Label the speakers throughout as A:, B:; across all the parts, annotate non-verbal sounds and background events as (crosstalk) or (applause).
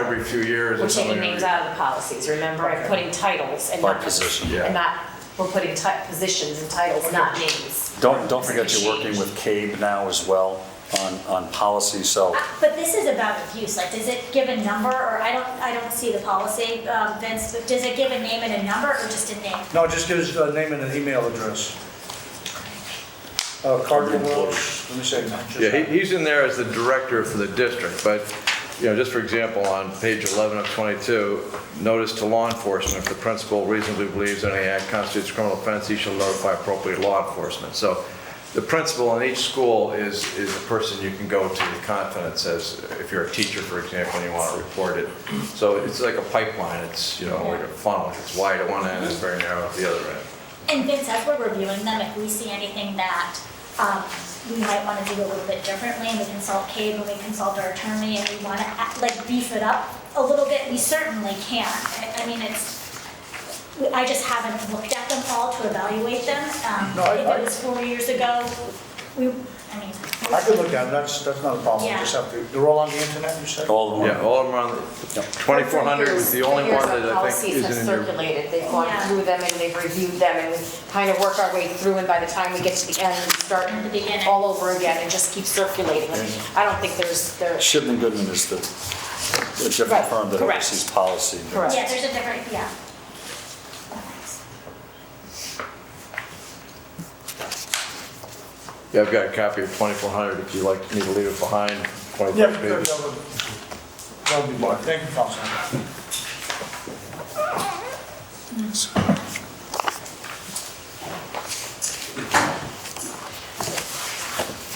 A: every few years
B: We're
A: or something.
B: taking names out of the policies, remember, and putting titles and
C: By
B: not.
C: position.
A: Yeah.
B: And not, we're putting ti- positions and titles, not names.
C: Don't, don't forget you're working with CABE now as well on, on policy, so
D: But this is about abuse, like, does it give a number, or I don't, I don't see the policy, um, Vince, but does it give a name and a number, or just a name?
E: No, just give us a name and an email address. Uh, Cardinal Wells, let me say. just-
A: Yeah, he- he's in there as the director for the district, but, you know, just for example, on page 11 of 22, notice to law enforcement, if the principal reasonably believes any act constitutes criminal offense, he shall notify appropriate law enforcement. So the principal in each school is, is the person you can go to in confidence as, if you're a teacher, for example, and you want to report it. So it's like a pipeline, it's, you know, like a funnel, it's wide at one end, it's very narrow at the other end.
D: And Vince, as we're reviewing them, if we see anything that, um, we might wanna do a little bit differently, and we consult Cave, and we consult our attorney, and we wanna, act- like, beef it up a little bit, we certainly can. I, I mean, it's, I just haven't looked at them all to evaluate them. Um,
E: No, I-
D: If
E: I-
D: it was four years ago, we, I mean.
E: I could look at them, that's, that's not a problem,
D: Yeah.
E: just have to, they're all on the internet, you said?
C: all of
A: Yeah,
C: them.
A: all of them are on, 2400 was the only one that I think
B: Years
A: isn't
B: of
A: in
B: policies
A: your.
B: have circulated, they've gone
D: Yeah.
B: through them and they've reviewed them and we kind of work our way through and by the time we get to the end, we start
D: In the beginning.
B: all over again and just keep circulating. I don't think there's, there's,
C: Shipman Goodman is the, the different
B: Right,
C: firm that
B: correct.
C: oversees policy.
B: Correct.
D: Yeah, there's a different, yeah.
A: Yeah, I've got a copy of 2400 if you'd like me to leave it behind,
E: Yeah,
A: 25
E: that would,
A: pages.
E: that would be fine, thank you, Councilman.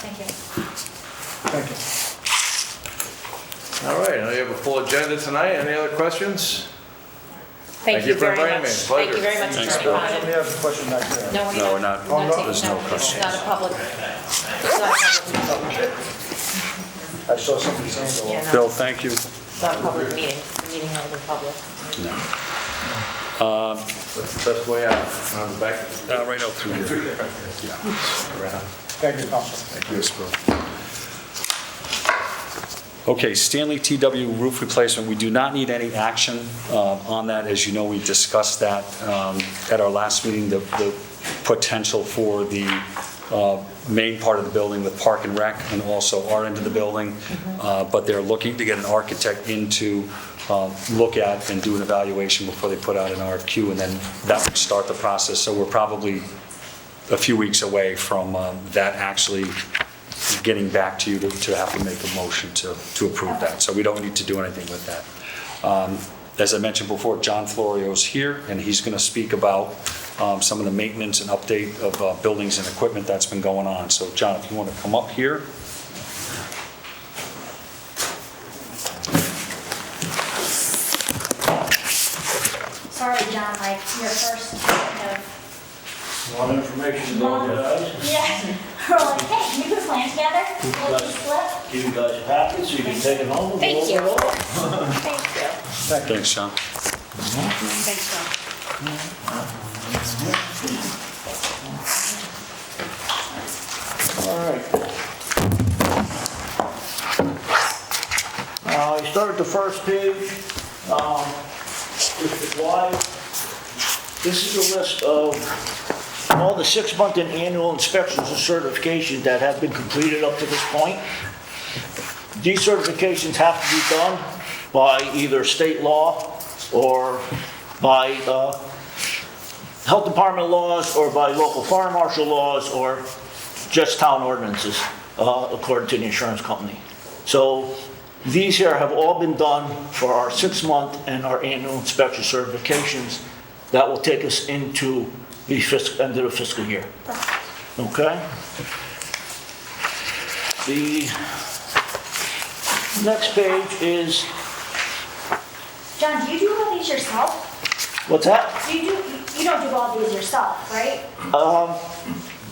D: Thank you.
E: Thank you.
A: All right, now you have a full agenda tonight. Any other questions?
B: thank you very much. Thank you very much,
C: Thanks,
B: Attorney
C: Bill.
E: Let
B: Ryan.
E: me ask a question back there.
B: No, we're
C: No, we're
B: not,
C: not-
B: we're
E: Oh,
B: not
E: no,
B: taking,
C: there's
B: no,
C: no
B: it's
C: questions.
B: not a public, it's not a public,
E: I saw somebody's hand go up.
B: yeah, no,
C: Bill, thank you.
B: it's not a public meeting, It's a meeting of the public.
A: Best way out, on the back.
C: Uh, Right out through here.
E: Thank you, Councilman.
C: Yes, Bill. Okay, Stanley TW roof replacement, we do not need any action um, on that. As you know, we discussed that um, at our last meeting, the- the potential for the uh, main part of the building with Park and Rec and also our end of the building. Uh, But they're looking to get an architect in to um, look at and do an evaluation before they put out an RFQ, and then that would start the process. So we're probably a few weeks away from um, that actually getting back to you to- to have to make a motion to, to approve that. So we don't need to do anything with that. Um, As I mentioned before, John Florio's here, and he's going to speak about um, some of the maintenance and update of uh, buildings and equipment that's been going on. So John, if you want to come up here.
D: Sorry, John, like, your first kind of,
F: A lot of information going to us.
D: yeah, (laughs) we're like, hey, can you put a plan together? Will you slip?
F: Give you guys a packet so you can take it home. and
B: Thank
F: go
B: you.
F: over it all.
B: Thank you.
C: Thanks, John.
B: Thanks, John.
F: All right. Uh, you start at the first page, um, with the why. This is a list of all the six-month and annual inspections and certifications that have been completed up to this point. These certifications have to be done by either state law or by, uh, health department laws or by local fire marshal laws or just town ordinances, uh, according to the insurance company. So these here have all been done for our six-month and our annual inspection certifications that will take us into the fiscal, end of the fiscal year. Okay? The next page is,
D: John, do you do all these yourself?
F: what's that?
D: You do, you don't do all these yourself, right?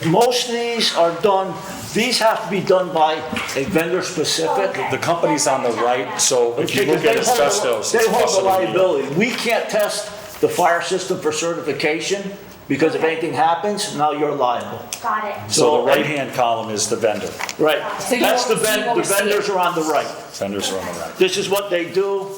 F: Most of these are done, these have to be done by a vendor-specific
C: The company's on the right, so if you look at
F: Because they hold the-
C: asbestos.
F: They
C: it's
F: hold the
C: possibly-
F: liability. We can't test the fire system for certification because if anything happens, now you're liable.
D: Got it.
C: So the right-hand column is the vendor.
F: Right.
B: So you
F: That's the
B: won't- you
F: vendor,
B: won't
F: the
B: see it.
F: vendors are on the right.
C: Vendors are on the right.
F: This is what they do.